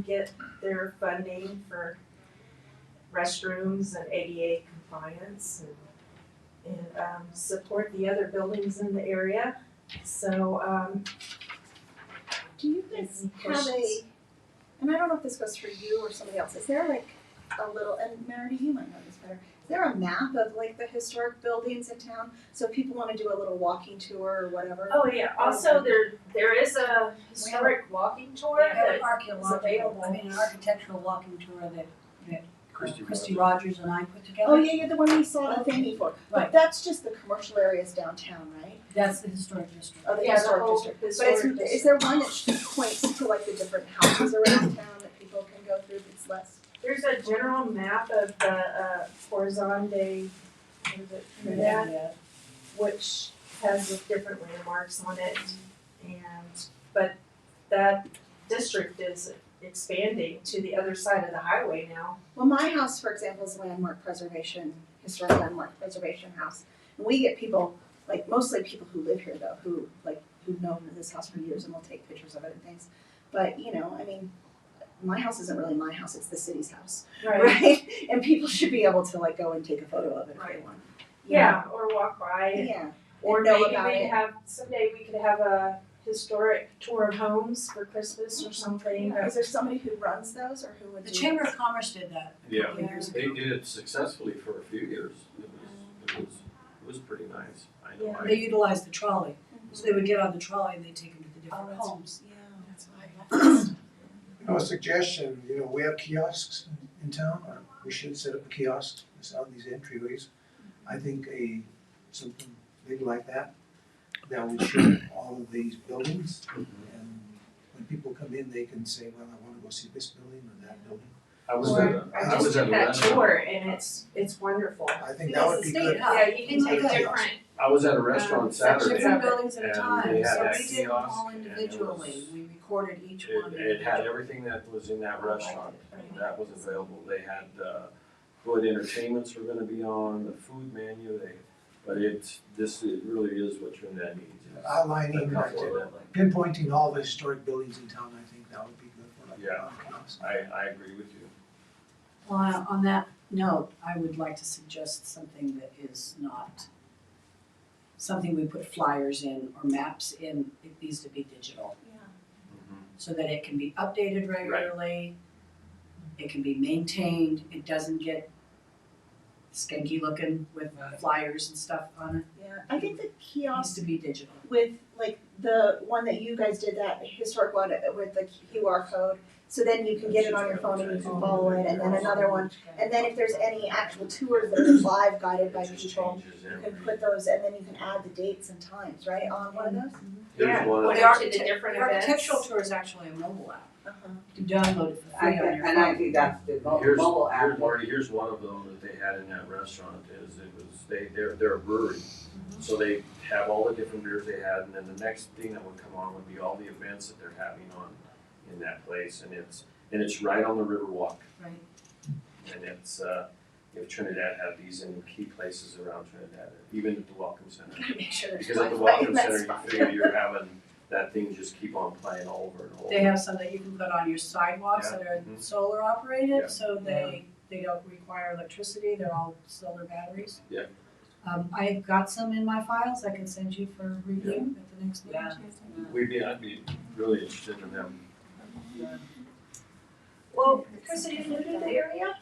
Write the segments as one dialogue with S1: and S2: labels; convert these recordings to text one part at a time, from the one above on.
S1: get their funding for restrooms and ADA compliance and, and, um, support the other buildings in the area. So, um,
S2: Do you guys
S1: Any
S2: have
S1: questions?
S2: a, and I don't know if this goes for you or somebody else, is there like a little, and Meredith, you might know this better, is there a map of like the historic buildings in town? So if people wanna do a little walking tour or whatever?
S1: oh yeah, also there, there is a historic walking tour
S3: We have
S1: that
S3: an archaeological, I mean, an architectural walking tour that, that uh, Christy Rogers and I put together.
S2: Oh, yeah, yeah, the one we saw the thing before, but
S3: Right.
S2: that's just the commercial areas downtown, right?
S3: That's the historic district.
S2: Of the
S1: Yeah, the
S2: historic
S1: whole
S2: district. But is,
S1: historic
S2: is
S1: district.
S2: there one that points to like the different houses around town that people can go through that's less?
S1: There's a general map of the, uh, Horizonte, what is it, Trinidad?
S3: Yeah.
S1: which has the different landmarks on it. And, but that district is expanding to the other side of the highway now.
S2: Well, my house, for example, is landmark preservation, historic landmark preservation house. And we get people, like mostly people who live here though, who like, who've known this house for years and will take pictures of it and things. But, you know, I mean, my house isn't really my house, it's the city's house, right? And people should be able to like go and take a photo of it if they
S1: Right.
S2: want. you
S1: Yeah, or walk
S2: know?
S1: by.
S2: Yeah.
S1: Or
S2: And know
S1: maybe
S2: about
S1: they
S2: it.
S1: have, someday we could have a historic tour of homes for Christmas or something.
S2: Yeah. Is there somebody who runs those or who would do?
S3: The Chamber of Commerce did that. a
S4: Yeah,
S3: couple years
S4: they
S3: ago.
S4: did it successfully for a few years. It was, it was, it was pretty nice. I know.
S3: They
S4: I-
S3: utilized the trolley, so they would get on the trolley and they'd take them to the
S2: Oh,
S3: different
S2: that's-
S3: homes.
S2: Yeah, that's what I
S5: You know, a suggestion, you know, we have kiosks in- in town, or we should set up a kiosk that's out in these entryways. I think a, something big like that, that would show all of these buildings. And when people come in, they can say, well, I wanna go see this building or that building.
S4: I was
S5: Or-
S4: at a,
S1: I
S4: I
S1: just
S4: was at
S1: did
S4: a
S1: that
S4: restaurant,
S1: tour and it's, it's wonderful.
S5: I think that would be good.
S1: Yeah, you can
S5: take
S1: take different,
S5: different-
S4: I was at a restaurant Saturday.
S3: Different buildings at a
S4: and
S3: time,
S4: they had
S3: so
S4: that
S3: we did them
S4: kiosk,
S3: all
S4: and it
S3: individually,
S4: was-
S3: we recorded each
S4: It,
S3: one.
S4: it had everything that was in that restaurant that was available. They had, uh, what entertainments were gonna be on, the food menu, they, but it's, this, it really is what Trinidad needs. is a
S5: Outlining, like,
S4: couple of them.
S5: pinpointing all the historic buildings in town, I think that would be good for like a
S4: Yeah.
S5: kiosk.
S4: I, I agree with you.
S3: Well, on that note, I would like to suggest something that is not, something we put flyers in or maps in, it needs to be digital. So that it can be updated regularly, it can be maintained, it doesn't get skanky looking with flyers and stuff on it.
S2: Yeah, I think the
S3: It
S2: kiosk
S3: needs to be digital.
S2: with like the one that you guys did that historic one with the QR code. So then you can get it on your phone and you can follow it, and then another one. And then if there's any actual tours that are live guided by
S4: It just
S2: people,
S4: changes
S2: you
S4: every-
S2: can put those, and then you can add the dates and times, right, on one of those?
S4: There's
S1: yeah,
S4: one.
S1: Well,
S3: The
S1: they are-
S3: architect-
S1: the different
S3: the Architectural
S1: events.
S3: tour is actually a mobile app.
S2: Uh-huh.
S3: You download it for
S6: I
S3: free on
S6: can,
S3: your
S6: and I
S3: phone.
S6: do that through mo-
S4: Here's,
S6: mobile
S4: here's,
S6: app.
S4: Marty, here's one of them that they had in that restaurant is it was, they, they're, they're a brewery. So they have all the different beers they had and then the next thing that would come on would be all the events that they're having on in that place and it's, and it's right on the Riverwalk.
S3: Right.
S4: And it's, uh, if Trinidad had these in key places around Trinidad, even at the Welcome Center.
S2: Gotta make sure there's
S4: Because at the
S2: Wi-Fi in
S4: Welcome
S2: that
S4: Center, you
S2: spot.
S4: figure you're having that thing just keep on playing over and over.
S3: They have some that you can put on your sidewalks
S4: Yeah.
S3: that are
S4: Mhm.
S3: solar
S4: Yeah.
S3: operated, so they, they don't require electricity, they're all solar batteries.
S4: Yeah.
S3: Um, I've got some in my files, I can send you for review at the next meeting.
S6: Yeah.
S4: We'd be, I'd be really interested in them
S1: Well, Chris, are you new to the area?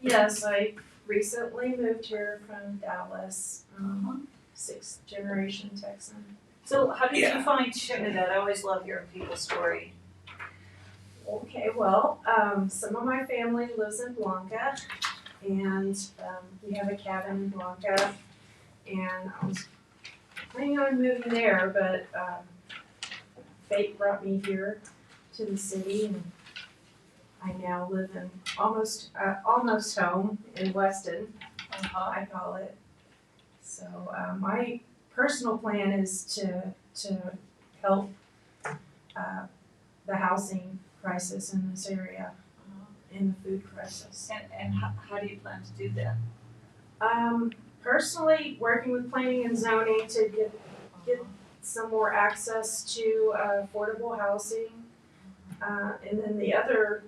S1: Yes, I recently moved here from Dallas, um, sixth generation Texan.
S7: So how did
S4: Yeah.
S7: you find Trinidad? I always love hearing people's story.
S1: Okay, well, um, some of my family lives in Blanca, and, um, we have a cabin in Blanca. And I was planning on moving there, but, um, fate brought me here to the city, and I now live in almost, uh, almost home in Weston.
S7: Uh-huh.
S1: I call it. So uh, my personal plan is to to help uh, the housing crisis in this area uh, and the food crisis.
S7: And, and how, how do you plan to do that?
S1: Um, personally, working with planning and zoning to get Get- some more access to uh, affordable housing. Uh, and then the other